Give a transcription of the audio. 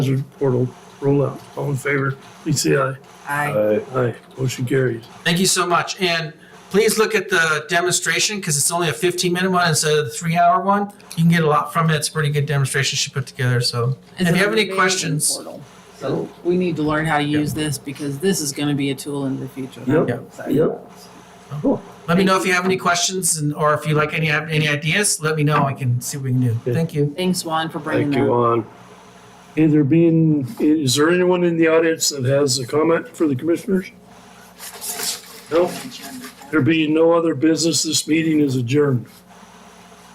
hazard portal rollout. All in favor, please say aye. I Uh, Aye. Motion carries. Thank you so much. And please look at the demonstration because it's only a 15 minute one instead of the three hour one. You can get a lot from it. It's a pretty good demonstration she put together. So It's if you have an any amazing questions, portal. So we need to learn how to use this because this is going to be a tool in the future. Yep, I'm excited yep. about it. let me know if you have any questions and or if you like any have any ideas, let me know. I can see what we can do. Yeah. Thank you. Thanks, Juan, for bringing Thank that. you, on. Okay, there being, is there anyone in the audience that has a comment for the commissioners? No? There being no other business, this meeting is adjourned.